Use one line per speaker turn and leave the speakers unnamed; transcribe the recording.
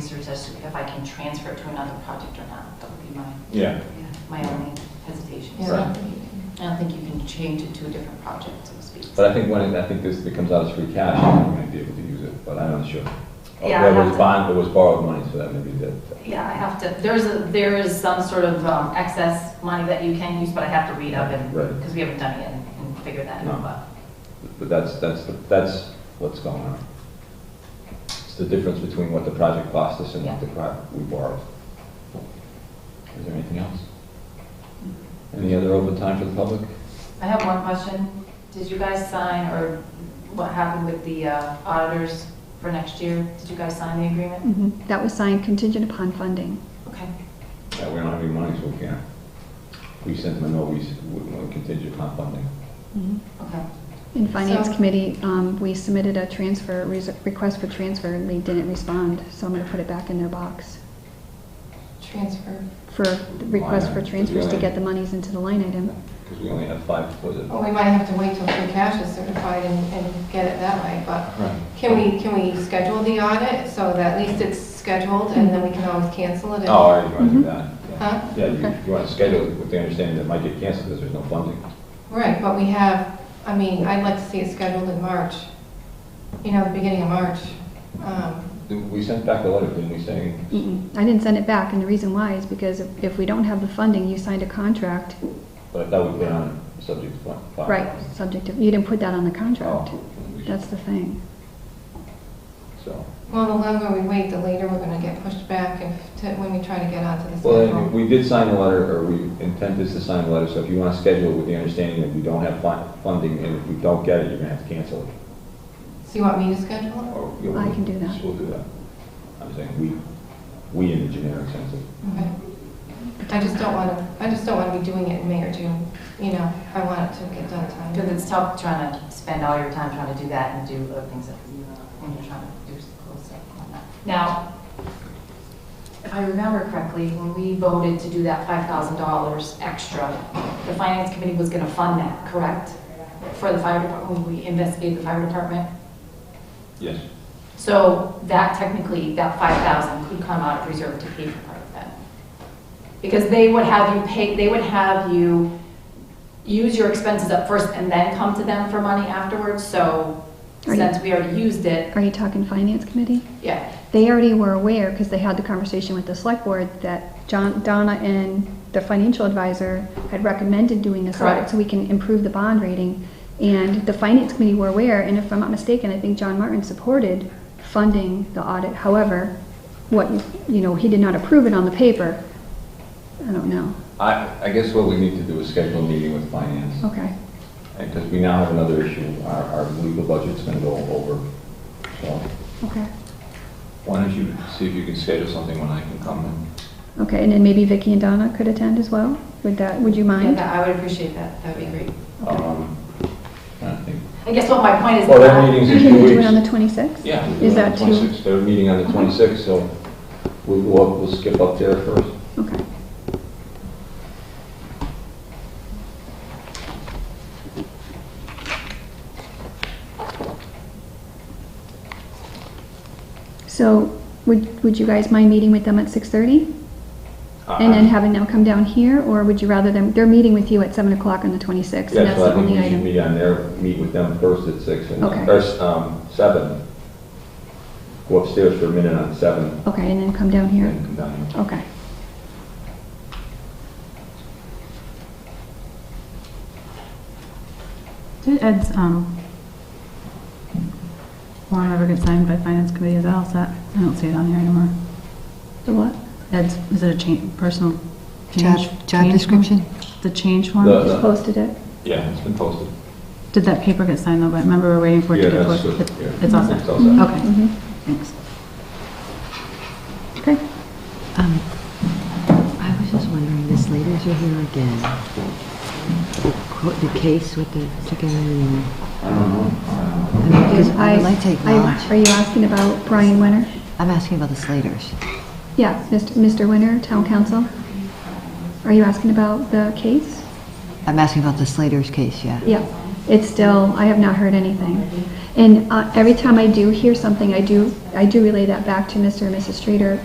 as to if I can transfer it to another project or not. That would be my,
Yeah,
my only hesitation.
Yeah.
So I don't think you can- I don't think you can change it to a different project, so to speak.
but I think when, it- I think this becomes out as free cash, we might be able to use it, but I'm not sure. Or
Yeah,
There
I'll
was
have to-
bond, there was borrowed money, so that maybe that.
Yeah, I have to, there's, a- there is some sort of um, excess money that you can use, but I have to read up and,
Right.
because we haven't done it and and figure that
No.
out. but-
But that's, that's, that's what's going on. It's the difference between what the project cost us and what the pro we borrowed. Is there anything else? Any other open time for the public?
I have one question. Did you guys sign, or what happened with the uh, auditors for next year? Did you guys sign the agreement?
Mhm. That was signed contingent upon funding.
Okay.
Yeah, we don't have any money, so we can't. We sent them a note, we s- we contingent upon funding.
Okay.
In Finance
So-
Committee, um, we submitted a transfer, res- request for transfer, and they didn't respond, so I'm going to put it back in their box
Transfer.
for the request for
Line item.
transfers to get the monies into the line item.
Because we only have five, was it?
Well, we might have to wait till free cash is certified and, and get it that way, but
Right.
can we, can we schedule the audit so that at least it's scheduled and then we can always cancel it? if-
Oh, all right, you want to
Mm-hmm.
do
Uh,
that? yeah.
Huh?
Yeah, you,
Okay.
you want to schedule it with the understanding that it might get canceled because there's no funding.
Right, but we have, I mean, I'd like to see it scheduled in March, you know, the beginning of March. Um,
We sent back a letter, didn't we, saying,
Mm-mm. I didn't send it back, and the reason why is because if if we don't have the funding, you signed a contract,
but I thought we put on subject to fund- fund.
right, subject to, you didn't put that on the contract.
Oh, we should-
That's the thing.
So,
Well, the longer we wait, the later we're gonna get pushed back if, to- when we try to get onto the
well, then,
schedule.
we did sign a letter, or we intend is to sign a letter, so if you want to schedule it with the understanding that we don't have fun- funding, and if we don't get it, you're going to have to cancel it.
So you want me to schedule it?
Or, you know,
I can do that.
We'll do that. I'm saying we, we in the generic sense of,
Okay. I just don't wanna, I just don't wanna be doing it in May or June, you know, I want it to get done time.
Because it's tough trying to spend all your time trying to do that and do other things that you, when you're trying to do close stuff on that. Now, if I remember correctly, when we voted to do that $5,000 extra, the finance committee was going to fund that, correct? For the fire department, when we investigated the fire department?
yes.
So that technically, that 5,000 could come out of reserve to pay for part of that. Because they would have you pay, they would have you use your expenses up first and then come to them for money afterwards. So
Right.
since we already used it,
Are you talking Finance Committee?
yeah,
They already were aware, because they had the conversation with the select board, that John, Donna and the financial advisor had recommended doing this audit,
Correct.
so we can improve the bond rating. And the finance committee were aware, and if I'm not mistaken, I think John Martin supported funding the audit. However, what, you know, he did not approve it on the paper. I don't know.
I, I guess what we need to do is schedule a meeting with finance,
Okay.
because we now have another issue, our, our legal budget's going to go over. So,
Okay.
why don't you see if you can schedule something when I can come in?
Okay, and then maybe Vicky and Donna could attend as well? Would that, would you
yeah,
mind?
that- I would appreciate that. That'd be great.
Um, I think.
I guess what my point is.
Well, that meeting's in
Can
two
we
weeks.
do it on the 26th?
Yeah. we do
Is
it on
that
the
too?
26th. They're meeting on the 26th, so we'll, go up- we'll skip up there first.
Okay. So would, would you guys mind meeting with them at 6:30?
Uh, Uh-huh.
And then having them come down here, or would you rather them, they're meeting with you at 7 o'clock on the 26th? and
Yeah,
that's
so
the
I think
only
we should
item.
meet on there, meet with them first at six, and,
Okay.
or, um, seven. Go upstairs for a minute on seven,
Okay, and then come down here?
and um, come down here.
Okay.
Did Ed's um, warrant ever get signed by Finance Committee? Is that all set? I don't see it on here anymore.
The what?
Uh-huh.
Ed's, is it a change, personal
Job,
change?
job
change form?
description?
The change
The-
form?
Just posted it.
Yeah, it's been posted.
Did that paper get signed though? But remember, we we're waiting for it
Yeah,
to get
that's
posted.
good,
It-
yeah.
It's all set?
It's all set.
Okay,
Mhm.
thanks.
Okay.
Um, I was just wondering, the Slaters are here again. The co- The case with the chicken and... I don't know. Because I would like to
I- Are
acknowledge,
you asking about Brian Winter?
I'm asking about the Slaters.
Yeah, Mr. Mr. Winter, Town Council. Are you asking about the case?
I'm asking about the Slaters case, yeah.
Yeah, it's still, I have not heard anything. And uh, every time I do hear something, I do, I do relay that back to Mr. and Mrs. Streeter